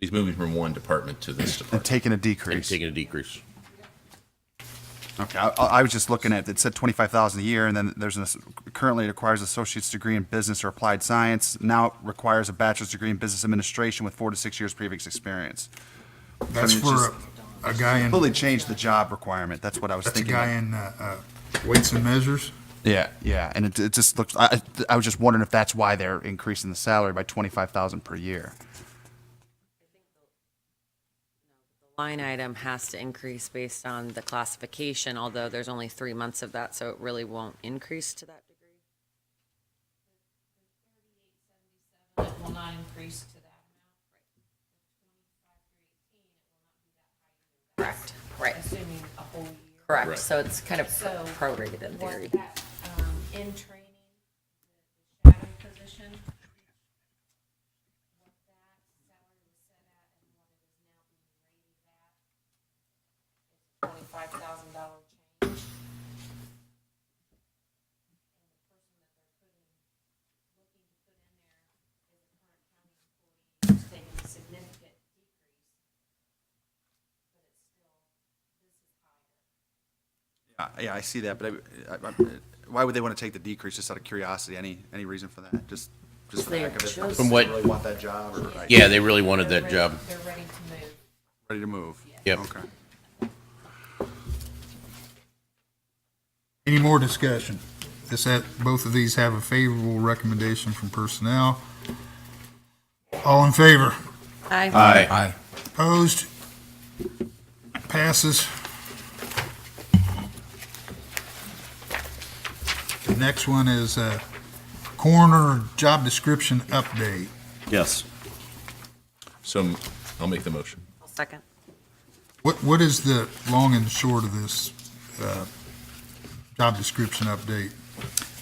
He's moving from one department to this and department taking a and decrease. taking a decrease. Okay, I, I was just looking at, it said twenty-five thousand a year, and then there's an, currently it requires associate's degree in business or applied science. Now it requires a bachelor's degree in business administration with four to six years previous experience. That's it's for a a guy in, Fully changed the job requirement, that's what I was that's a thinking. guy in uh, uh, weights and measures. Yeah, yeah, and it, it just looks, I, I- I was just wondering if that's why they're increasing the salary by twenty-five thousand per year. Line item has to increase based on the classification, although there's only three months of that, so it really won't increase to that degree. It will not increase to that Correct, right, amount, assuming a whole year. correct. So it's kind of So prorated in what theory. that, um, In training, the shadow position, what that salary was set at and what it is now being rated at, it's twenty-five thousand dollar change. And the person that they're putting, looking to put in there is a current county employee, who's taking a significant decrease Uh, Yeah, I see that, but I- I- I- why would they want to take the decrease, just out of curiosity? Any, any reason for that? Just, just for the heck of it? They're just- They From what- Really want that job or like, Yeah, they really wanted that job. They're ready to move. ready to move? Yep. Okay. Any more discussion? This, that, both of these have a favorable recommendation from personnel. All in favor? Aye. Aye. Opposed? Passes. The next one is uh, coroner job description update. Yes. So I'll make the motion. I'll Second. What, what is the long and short of this uh, job description update?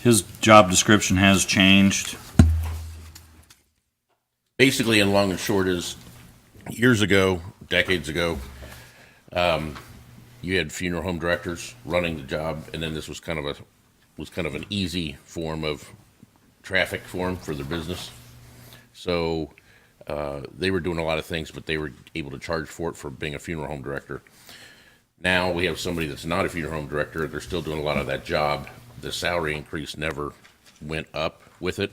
His job description has changed. basically, in long and short, is years ago, decades ago, um, you had funeral home directors running the job, and then this was kind of a was kind of an easy form of traffic form for their business. So uh, they were doing a lot of things, but they were able to charge for it for being a funeral home director. Now we have somebody that's not a funeral home director. They're still doing a lot of that job. The salary increase never went up with it.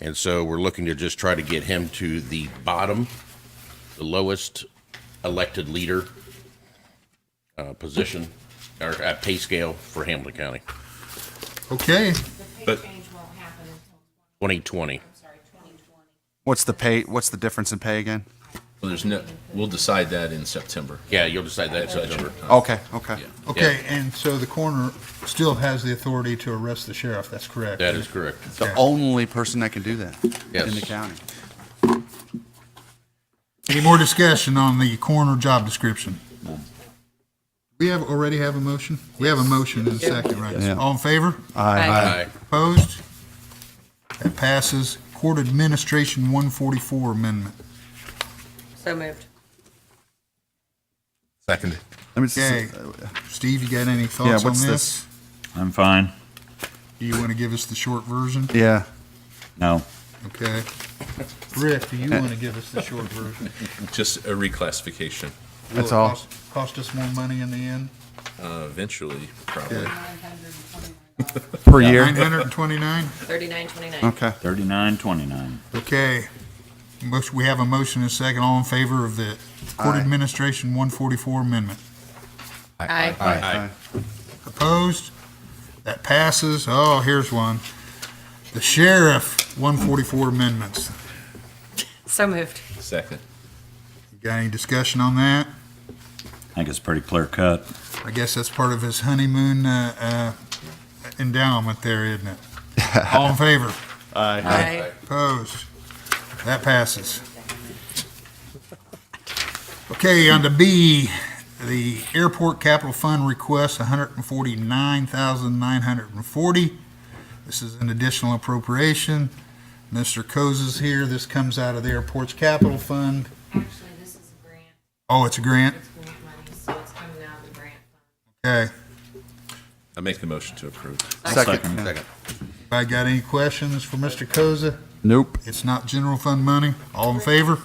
And so we're looking to just try to get him to the bottom, the lowest elected leader uh, position or uh, pay scale for Hamilton County, Okay, The pay But- change won't happen until, 2020. I'm sorry, twenty twenty. What's the pay, what's the difference in pay again? Well, there's no, we'll decide that in September. Yeah, you'll decide that in September. Okay, okay. okay, and so the coroner still has the authority to arrest the sheriff, that's correct? That is correct. The only person that can do that in the Yes. county. Any more discussion on the coroner job description? We have, already have a motion? We have a motion in a second, right? Yeah. All in favor? Uh, Aye. Aye. Opposed? That passes. Court Administration 144 Amendment. So moved. Second. Let me see, Okay, Steve, you got any uh, yeah, thoughts on what's this? this? I'm fine. Do you want to give us the short version? Yeah, No. Okay. Uh, Rick, do you want to give us the short version? Just a reclassification, Will That's it all. cost- Cost us more money in the end? uh, eventually, probably. per year? 929? 3929. Okay. Thirty-nine, twenty-nine. Okay. Motion, we have a motion and a second. All in favor of the Court Aye. Administration 144 Amendment? Aye. Aye. Opposed? That passes. Oh, here's one. The Sheriff 144 Amendments. So moved. Second. You Got any discussion on that? I think it's pretty clear cut. I guess that's part of his honeymoon uh, uh, endowment there, isn't it? All in favor? Aye. Opposed? That passes. Okay, on to B, the Airport Capital Fund requests $149,940. This is an additional appropriation. Mr. Coase is here. This comes out of the Airport's Capital Fund. Actually, this is a grant, Oh, it's a grant? it's grant money, so it's coming out of the grant fund. Okay. I make the motion to approve. Second. Second. I got any questions for Mr. Coase? Nope. It's not general fund money. All in favor?